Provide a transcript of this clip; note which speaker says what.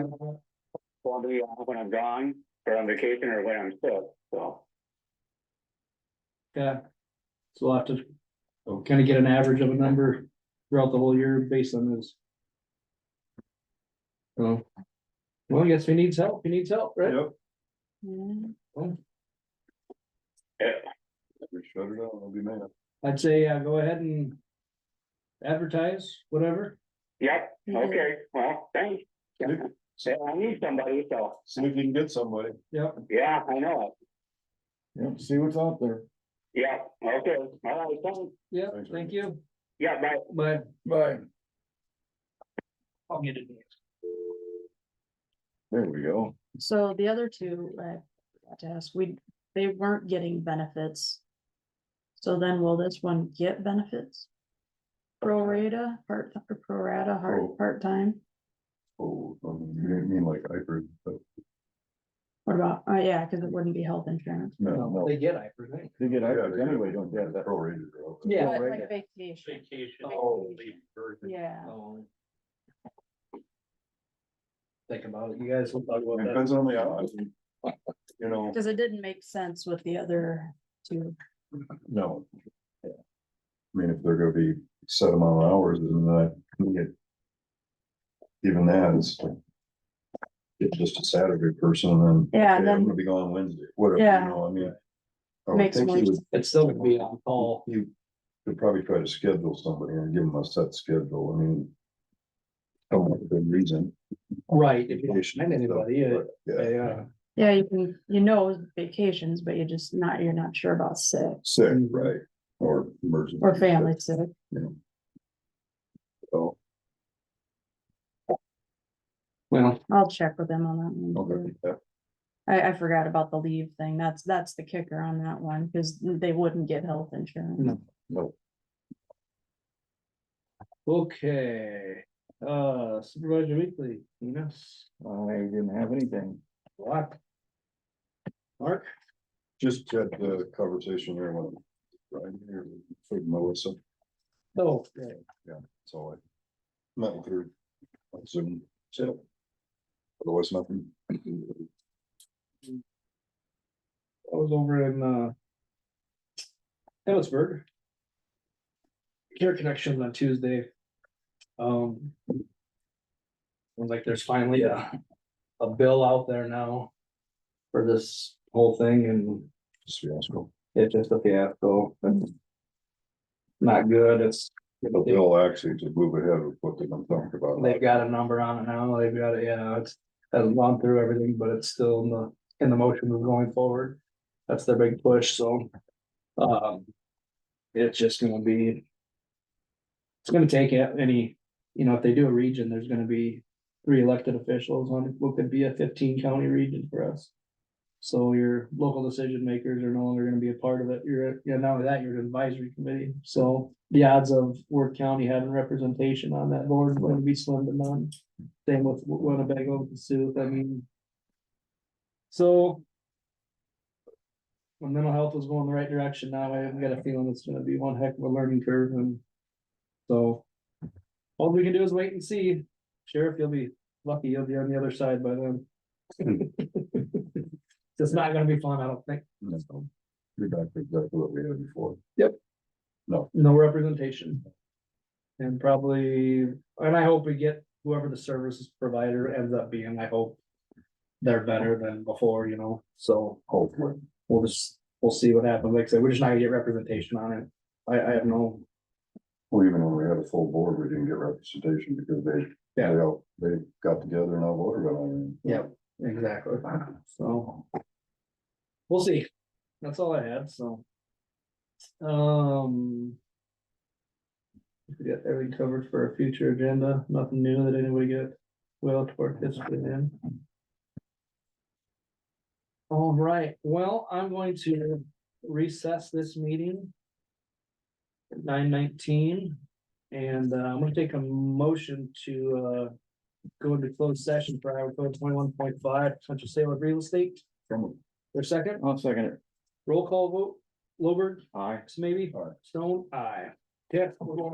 Speaker 1: Well, do you, when I'm gone, or on vacation, or when I'm sick, so.
Speaker 2: Yeah. So we'll have to kind of get an average of a number throughout the whole year based on this. So. Well, I guess who needs help? Who needs help, right?
Speaker 3: Yep,
Speaker 4: Mm-hmm.
Speaker 1: Yeah,
Speaker 3: we shut it out, I'll be mad.
Speaker 2: I'd say, uh, go ahead and. Advertise, whatever.
Speaker 1: yep,
Speaker 4: Mm-hmm.
Speaker 1: okay, well, thanks. Yeah, I need somebody, so,
Speaker 3: See if you can get somebody.
Speaker 2: Yep.
Speaker 1: yeah, I know,
Speaker 3: Yep, see what's out there.
Speaker 1: yeah, okay, all right, thanks,
Speaker 2: Yeah,
Speaker 3: Thanks, Rick.
Speaker 2: thank you.
Speaker 1: yeah, bye.
Speaker 2: But
Speaker 3: Bye.
Speaker 2: I'll get it.
Speaker 3: There we go.
Speaker 4: So the other two, I forgot to ask, we, they weren't getting benefits. So then will this one get benefits? Pro rata, part, or pro rata,
Speaker 3: Oh.
Speaker 4: hard, part-time?
Speaker 3: Oh, um, you didn't mean like I heard, but
Speaker 4: What about, oh yeah, cause it wouldn't be health insurance.
Speaker 3: no,
Speaker 2: No,
Speaker 3: no.
Speaker 2: They get, I presume.
Speaker 3: They get
Speaker 5: hybrids
Speaker 3: anyway, don't get that. Prorated. or-
Speaker 2: Yeah.
Speaker 4: But
Speaker 3: Prorated.
Speaker 4: like vacation,
Speaker 5: Vacation.
Speaker 4: Oh.
Speaker 5: leave birth.
Speaker 4: yeah,
Speaker 2: Oh. Think about it, you guys will talk
Speaker 3: It
Speaker 2: about that.
Speaker 3: Depends on the hours. You know,
Speaker 4: cause it didn't make sense with the other two.
Speaker 3: no. Yeah. I mean, if they're gonna be set amount of hours, then that, we get- Even that is. It's just a Saturday person and then.
Speaker 4: Yeah,
Speaker 3: okay, I'm
Speaker 4: then-
Speaker 3: gonna be gone Wednesday, whatever,
Speaker 4: Yeah.
Speaker 3: you know, I mean. Oh, I would
Speaker 4: Makes
Speaker 3: think he
Speaker 4: more
Speaker 3: would
Speaker 4: sense.
Speaker 2: It's still gonna be on call.
Speaker 3: You could probably try to schedule somebody and give them a set schedule, I mean. Don't want a good reason.
Speaker 2: Right, if you don't find anybody, uh,
Speaker 3: Yeah,
Speaker 2: they, uh,
Speaker 4: Yeah, you can, you know vacations, but you just not, you're not sure about sick
Speaker 3: sick,
Speaker 2: mm-hmm.
Speaker 3: right, or emergency.
Speaker 4: or family sick.
Speaker 3: So,
Speaker 2: well,
Speaker 4: I'll check with them on that one. too.
Speaker 3: okay, yeah,
Speaker 4: I, I forgot about the leave thing. That's, that's the kicker on that one, because they wouldn't get health insurance.
Speaker 2: No.
Speaker 3: no,
Speaker 2: Okay, uh, Supervisor Weekly, Enos,
Speaker 5: I didn't have anything.
Speaker 2: Block. Mark,
Speaker 3: just had the conversation here when, right, here, with Melissa,
Speaker 2: oh,
Speaker 3: so I met with her on Zoom, so. Otherwise, nothing.
Speaker 2: I was over in, uh. Ellisburg. Care Connections on Tuesday. Um. Seems like there's finally a, a bill out there now. For this whole thing and
Speaker 3: Just fiasco.
Speaker 2: it's just a fiasco. and Not good, it's
Speaker 3: But they'll actually to move ahead with what they've been talking about.
Speaker 2: They've got a number on it now, they've got it, yeah, it's, hasn't gone through everything, but it's still in the, in the motion of going forward. That's their big push, so. Um. It's just gonna be. It's gonna take a- any, you know, if they do a region, there's gonna be three elected officials on what could be a fifteen county region for us. So your local decision makers are no longer gonna be a part of it, you're, you know, not only that, you're an advisory committee, so the odds of Worth County having representation on that board is gonna be slim to none. Same with Winnebago, Sioux, I mean. So. When mental health was going the right direction, now I've got a feeling it's gonna be one heck of a learning curve and. So. All we can do is wait and see. Sheriff, you'll be lucky, you'll be on the other side by then. It's not gonna be fun, I don't think.
Speaker 3: No, You're back to exactly what we had before.
Speaker 2: No representation. And probably, and I hope we get whoever the services provider ends up being, I hope. They're better than before, you know, so
Speaker 3: Hopefully.
Speaker 2: we'll just, we'll see what happens. Like I said, we're just not gonna get representation on it. I, I have no,
Speaker 3: Well, even when we had a full board, we didn't get representation because they, they,
Speaker 2: Yeah.
Speaker 3: all- they got together and all voted on it.
Speaker 2: Yep. exactly, so. We'll see. That's all I had, so. Um. We got everything covered for a future agenda, nothing new that anybody get well toward this in. All right, well, I'm going to recess this meeting. at Nine nineteen, and uh, I'm gonna take a motion to uh. Go into closed session for Iowa code twenty-one point five, potential sale of real estate,
Speaker 3: From
Speaker 2: their second?
Speaker 5: I'll second it.
Speaker 2: Roll call vote, Lowberg,
Speaker 5: Aye.
Speaker 2: maybe,
Speaker 3: Aye.
Speaker 2: Stone, aye. Yeah.